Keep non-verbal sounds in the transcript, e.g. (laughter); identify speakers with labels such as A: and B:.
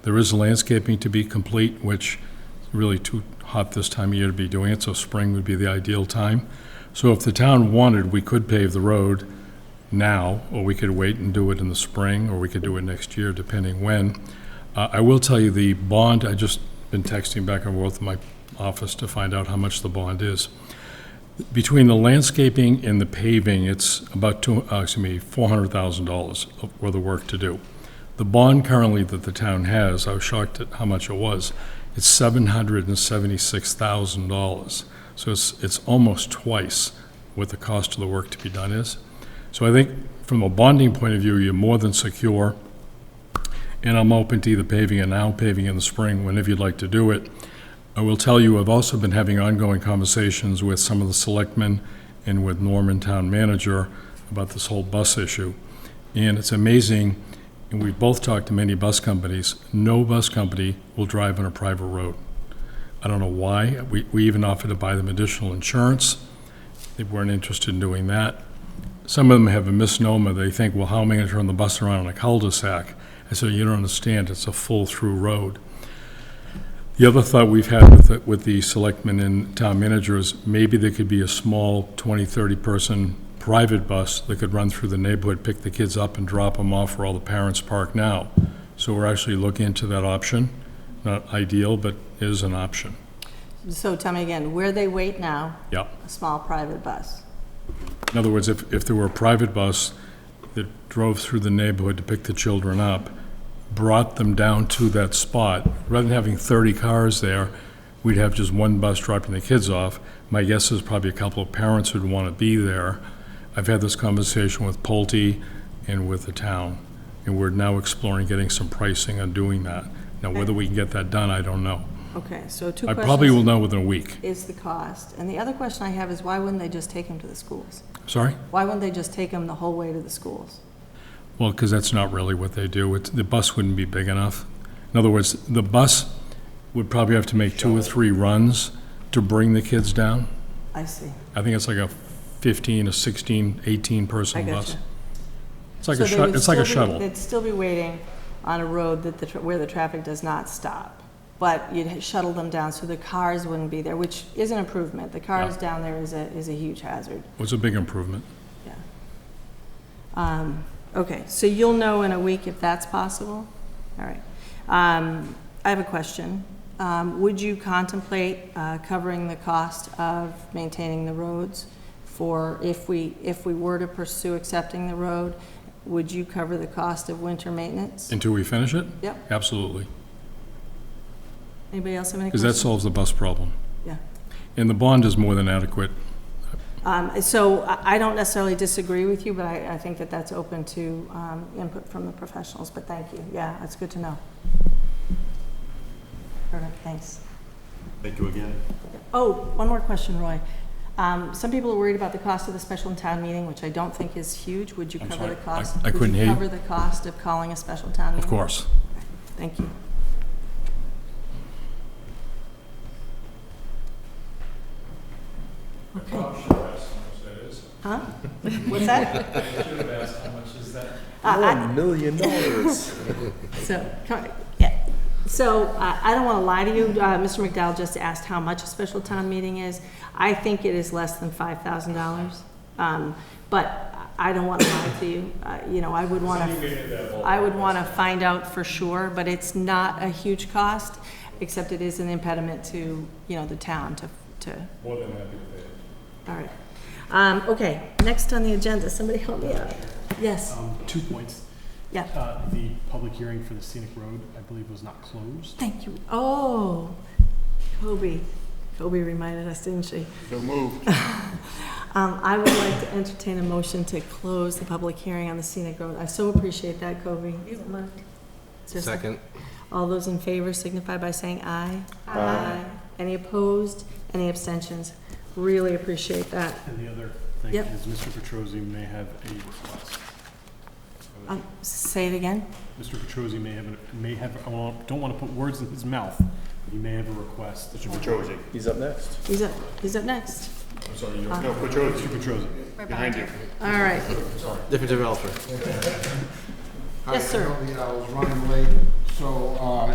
A: There is landscaping to be complete, which is really too hot this time of year to be doing it, so spring would be the ideal time. So if the town wanted, we could pave the road now, or we could wait and do it in the spring, or we could do it next year, depending when. Uh, I will tell you, the bond, I just been texting back and forth in my office to find out how much the bond is. Between the landscaping and the paving, it's about two, uh, excuse me, $400,000 of- worth of work to do. The bond currently that the town has, I was shocked at how much it was, it's seven hundred and seventy-six thousand dollars. So it's, it's almost twice what the cost of the work to be done is. So I think from a bonding point of view, you're more than secure. And I'm open to either paving it now, paving in the spring, whenever you'd like to do it. I will tell you, I've also been having ongoing conversations with some of the selectmen and with Norman Town Manager about this whole bus issue. And it's amazing, and we've both talked to many bus companies, no bus company will drive on a private road. I don't know why. We, we even offered to buy them additional insurance. They weren't interested in doing that. Some of them have a misnomer. They think, well, how am I going to turn the bus around on a cul-de-sac? I said, you don't understand. It's a full-through road. The other thought we've had with, the- with the selectmen and town managers, maybe there could be a small 20, 30-person private bus that could run through the neighborhood, pick the kids up and drop them off where all the parents park now. So we're actually looking into that option. Not ideal, but is an option.
B: So tell me again, where they wait now,
A: Yeah.
B: a small private bus?
A: In other words, if, if there were a private bus that drove through the neighborhood to pick the children up, brought them down to that spot, rather than having 30 cars there, we'd have just one bus dropping the kids off. My guess is probably a couple of parents would want to be there. I've had this conversation with Pulte and with the town, and we're now exploring getting some pricing on doing that. Now, whether we can get that done, I don't know.
B: Okay, so two
A: I
B: questions.
A: probably will know within a week.
B: Is the cost. And the other question I have is why wouldn't they just take them to the schools?
A: Sorry?
B: Why wouldn't they just take them the whole way to the schools?
A: Well, because that's not really what they do. It's, the bus wouldn't be big enough. In other words, the bus would probably have to make two or three runs to bring the kids down.
B: I see.
A: I think it's like a 15, a 16,
B: I
A: 18-person bus.
B: gotcha.
A: It's like
B: So
A: a
B: they
A: shut,
B: would
A: it's like a
B: still be-
A: shuttle.
B: They'd still be waiting on a road that the, tr- where the traffic does not stop. But you'd shuttle them down so the cars wouldn't be there, which is an improvement. The cars
A: Yeah.
B: down there is a, is a huge hazard.
A: It was a big improvement.
B: Yeah. Um, Okay, so you'll know in a week if that's possible? All right. Um, I have a question. Um, Would you contemplate uh, covering the cost of maintaining the roads for, if we, if we were to pursue accepting the road, would you cover the cost of winter maintenance?
A: Until we finish it?
B: Yep.
A: Absolutely.
B: Anybody else have any
A: Because that
B: questions?
A: solves the bus problem.
B: Yeah.
A: And the bond is more than adequate.
B: Um, So I I don't necessarily disagree with you, but I, I think that that's open to um, input from the professionals, but thank you. Yeah, that's good to know. Perfect, thanks.
C: Thank you again.
B: Oh, one more question, Roy. Um, Some people are worried about the cost of the special town meeting, which I don't think is huge. Would you
A: I'm
B: cover the
A: sorry, I-
B: cost?
A: I couldn't hear you.
B: Would you cover the cost of calling a special town meeting?
A: Of course.
B: Thank you. Huh? What's that? Uh, I-
C: million dollars. (laughs)
B: So, come- yeah. so uh, I don't want to lie to you, Uh, Mr. McDowell just asked how much a special town meeting is. I think it is less than $5,000, Um, but I don't want to lie to you. Uh, You know, I would want to, I would want to find out for sure, but it's not a huge cost, except it is an impediment to, you know, the town to, to,
A: More than happy to pay.
B: all right. Um, Okay, next on the agenda, somebody help me out. Yes,
D: Um, Two points.
B: Yeah.
D: Uh, The public hearing for the scenic road, I believe, was not closed.
B: thank you. Oh, Kobe, Kobe reminded us, didn't she?
C: So move.
B: (laughs) Um, I would like to entertain a motion to close the public hearing on the scenic road. I so appreciate that, Kobe. You left.
E: Second.
B: All those in favor signify by saying aye. Aye. Any opposed? Any abstentions? Really appreciate that.
D: And the other thing
B: Yep.
D: is Mr. Petrosi may have a request.
B: Um, Say it again?
D: Mr. Petrosi may have, a- may have, I don't- don't want to put words in his mouth, but he may have a request. Mr.
C: Petrosi. He's up next.
B: He's up, he's up next. Uh-huh.
C: No, Petrosi,
D: Petrosi.
C: behind you.
B: All right.
E: Different developer.
F: Hi,
B: Yes, sir.
F: I know the hour's running late, so uh,